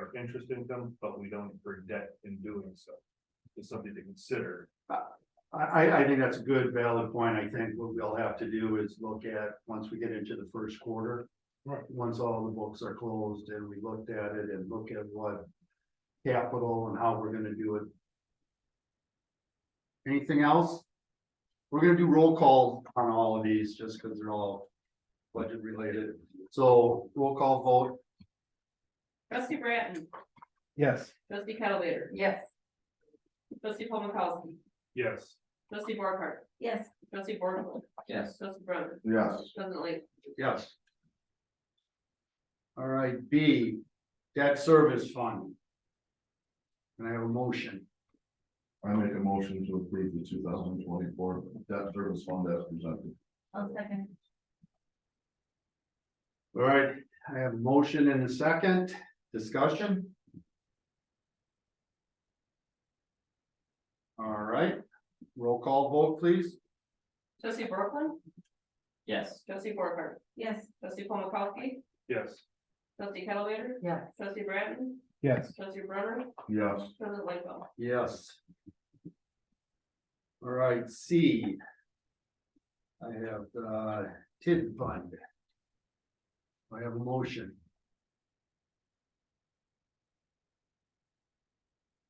our interest income, but we don't incur debt in doing so. It's something to consider. I, I, I think that's a good valid point. I think what we'll have to do is look at, once we get into the first quarter. Right. Once all the books are closed and we looked at it and look at what capital and how we're gonna do it. Anything else? We're gonna do roll call on all of these, just because they're all budget related. So roll call vote, Trustee Bratton, Yes. trustee Cavalier. Yes. Trustee Paul Mikowski, Yes, trustee Borcar. Yes. Trustee Borcar. Yes. Trustee Brother, yes. President Lee. Yes. All right, B, debt service fund. And I have a motion, I make a motion to approve the two thousand twenty-four debt service fund as presented. I'll second. all right, I have a motion and a second, discussion? All right, roll call vote, please. Trustee Brooklyn, Yes. trustee Borcar. Yes. Trustee Paul Mikowski, yes. trustee Cavalier. Yes. Trustee Bratton, Yes. trustee Brother, Yes. President Lightfoot. Yes. All right, C. I have, uh, TID fund. I have a motion,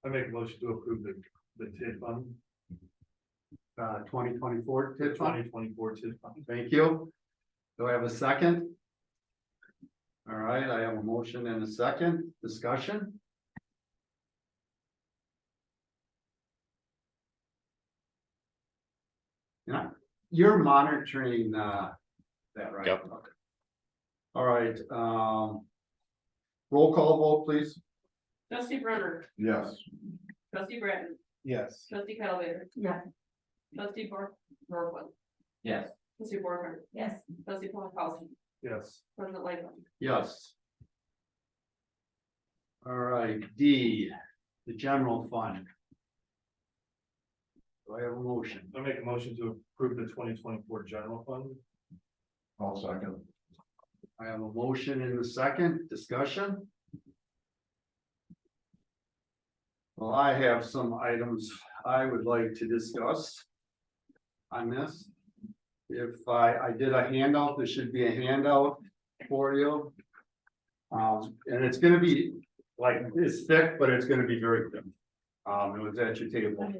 I make a motion to approve the, the TID fund, uh, twenty twenty-four the TID fund. twenty twenty-four TID fund. Thank you. Do I have a second? All right, I have a motion and a second discussion. Yeah, you're monitoring uh that, right? Yep. Okay. All right, um. Roll call vote, please. Trustee Brunner, Yes. trustee Bratton, Yes. trustee Cavalier. Yeah. Trustee Bor- Brooklyn, Yes. trustee Borcar. Yes. Trustee Paul Mikowski, Yes, President Lightfoot. Yes. All right, D, the general fund. Do I have a motion? I make a motion to approve the twenty twenty-four general fund. I'll second. I have a motion in the second discussion. Well, I have some items I would like to discuss. On this. If I, I did a handout, there should be a handout for you. Um, and it's gonna be like, it's thick, but it's gonna be very thick. Um, it was at your table.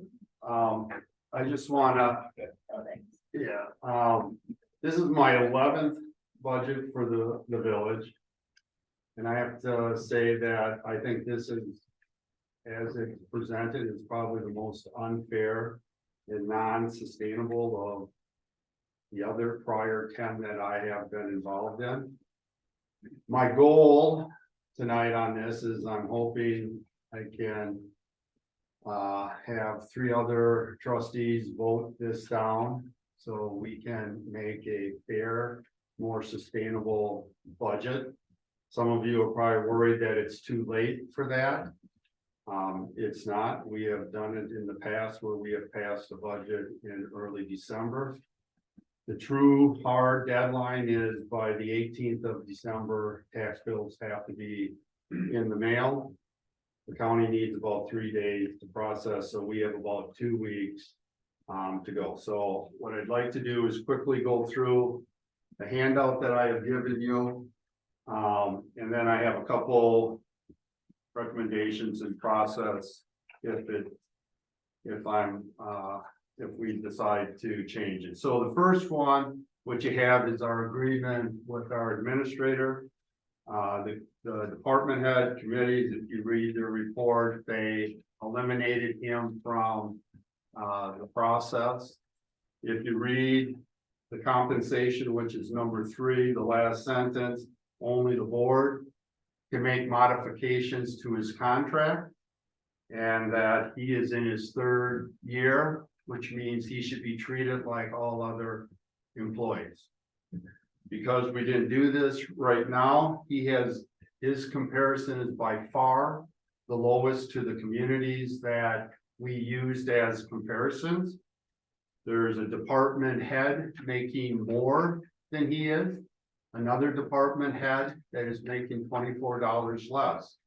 Um, I just wanna. Yeah, um, this is my eleventh budget for the, the village. And I have to say that I think this is, as it's presented, is probably the most unfair and non-sustainable of the other prior ten that I have been involved in. My goal tonight on this is I'm hoping I can uh, have three other trustees vote this down, so we can make a fair more sustainable budget. Some of you are probably worried that it's too late for that. Um, it's not. We have done it in the past where we have passed a budget in early December. The true hard deadline is by the eighteenth of December, tax bills have to be in the mail. The county needs about three days to process, so we have about two weeks um, to go. So what I'd like to do is quickly go through the handout that I have given you. Um, and then I have a couple recommendations and process if it, if I'm, uh, if we decide to change it. So the first one, what you have is our agreement with our administrator. Uh, the, the department head committees, if you read their report, they eliminated him from, uh, the process. If you read the compensation, which is number three, the last sentence, only the board can make modifications to his contract. And that he is in his third year, which means he should be treated like all other employees. Because we didn't do this right now, he has, his comparison is by far the lowest to the communities that we used as comparisons. There's a department head making more than he is. Another department head that is making twenty-four dollars less.